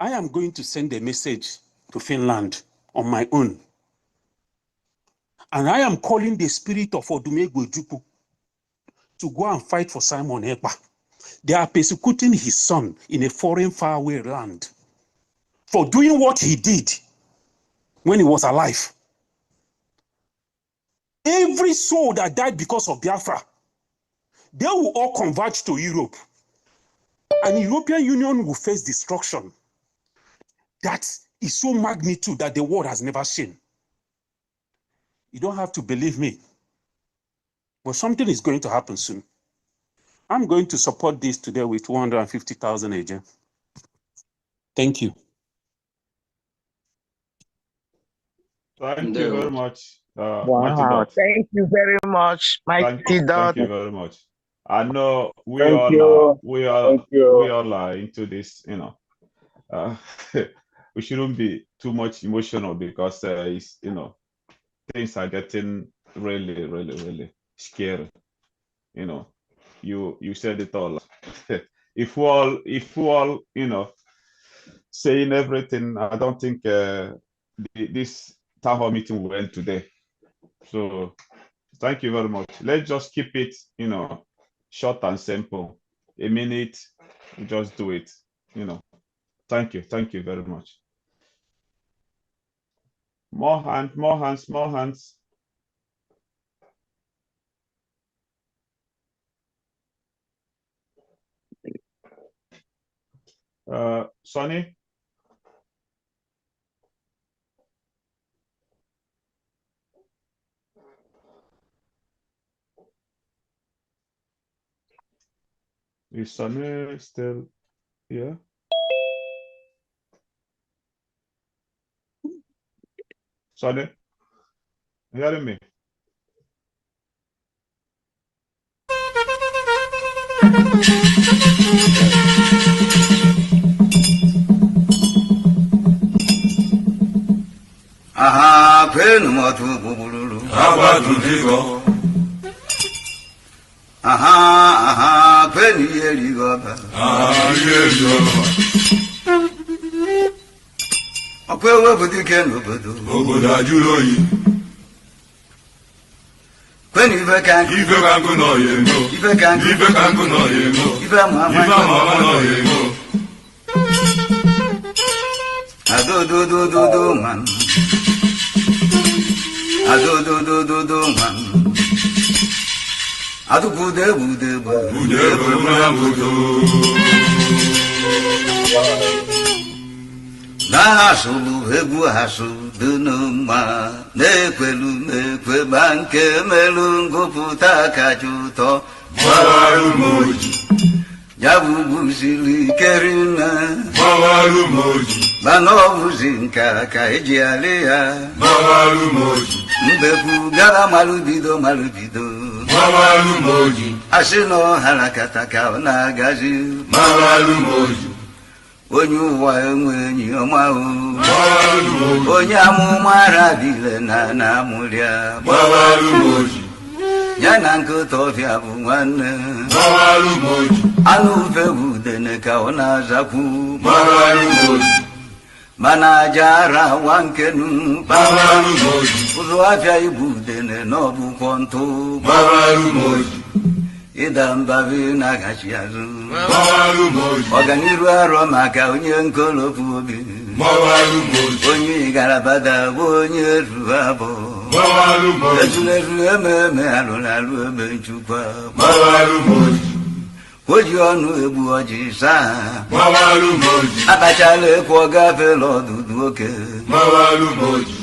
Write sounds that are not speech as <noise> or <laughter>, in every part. I am going to send a message to Finland on my own. And I am calling the spirit of Odumegwu Ojukwu to go and fight for Simon Ekpa. They are persecuting his son in a foreign, faraway land for doing what he did when he was alive. Every soul that died because of Biafra, they will all converge to Europe. And European Union will face destruction that is so magnitude that the world has never seen. You don't have to believe me, but something is going to happen soon. I'm going to support this today with 250,000 agents. Thank you. Thank you very much. Uh, Mighty Wow, Dog. thank you very much, Thank, Mighty thank Dog. you very much. I know we Thank all you. are, we all, Thank you. we all are into this, you know. Uh, <laughs> we shouldn't be too much emotional because uh, it's, you know, things are getting really, really, really scary. You know, you you said it all. <laughs> if we all, if we all, you know, saying everything, I don't think uh, the, this town hall meeting will end today. So thank you very much. Let's just keep it, you know, short and simple. A minute, we just do it. You know, thank you, thank you very much. More hand, more hands, more hands. Uh, Sonny, is Sonny still here? Sonny, you hearing me? aha kwenu motu bubululu Abaduligo, aha aha kwenu yeligoba Ayelio, 어, okwewepụtike n'obodo obodo ajụrụ oyi, kwenu ife ka nkụ ife ka nkụ nọ ya emo, ife ka nkụ ife ka nkụ nọ ya emo, ife ama ama ife ama ama nọ ya emo, 아, adododododo nwanụ 아, adododododo nwanụ adụkwudo egbudo egbe ude ebe mmanụ agụdo. na ha asụrụ egwu ha asụrụ dunu mma na-ekwelu na-ekwe ma nke melu ngụpụta kacha ụtọ Gbawarụ m oji, ya bụ gbuziri ike rinne gbawarụ m oji, mana ọ bụzi nka ka eji alị ya gbawarụ m oji, mbekwu gara malụbido malụbido gbawarụ m oji, asị na ọ harakata ka ọ na-agazi gbawarụ m oji, onye ụwa enwe enyi ọma o gbawarụ m oji, onye amụma rabile na na amụrịa gbawarụ m oji, ya na nkịta ọfịa bụ nwanne gbawarụ m oji, anụ ufe bụ udene ka ọ na-azakwu gbawarụ m oji, mana aja ara wa nkenu gbawarụ m oji, ụzụ afịa ibu udene na ọbụkwọ ntụ gbawarụ m oji, ịda mbabi na-agachi azụ gbawarụ m oji, ọganiru arọ maka onye nkolopu obi gbawarụ m oji. onye garabada bụ onye ruru abụ Mawalu moji, ezulezu ememe alụrụ alụ eme njikwa mawalu moji, oji ọnụ egbu ọjị saa mawalu moji, akpachala ekwu ọ gafela ọdụdụ oke mawalu moji,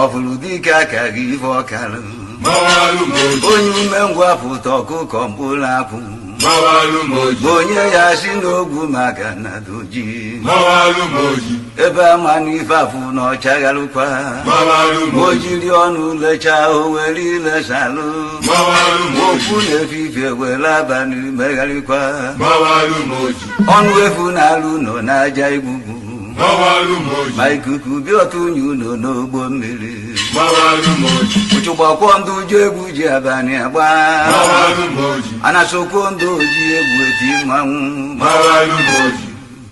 ọfụrụ dike aka gị ife ọkarụ mawalu moji, onye umengwụ apụta ọkụkọ mkpụrụ apụ mawalu moji, onye ya si n'ogwu maka na doji mawalu moji, ebe amanụ ife afụ na ọchagharụkwa mawalu o moji, jiri ọnụ lechaa o were ilesalụ mawalu okwu moji, na-efife were abalị megharịkwa mawalu moji, ọnụ efu na-alụ nọ n'aja igbugbu mawalu moji, ma ikuku bịa ọtụ unyi ụlọ n'ogbo mmiri mawalu moji, ụchụgbakwọ ndụ ji egwu ji abalị agba mawalu moji, anasokwo ndụ oji egwu eti mmanwụ mawalu moji,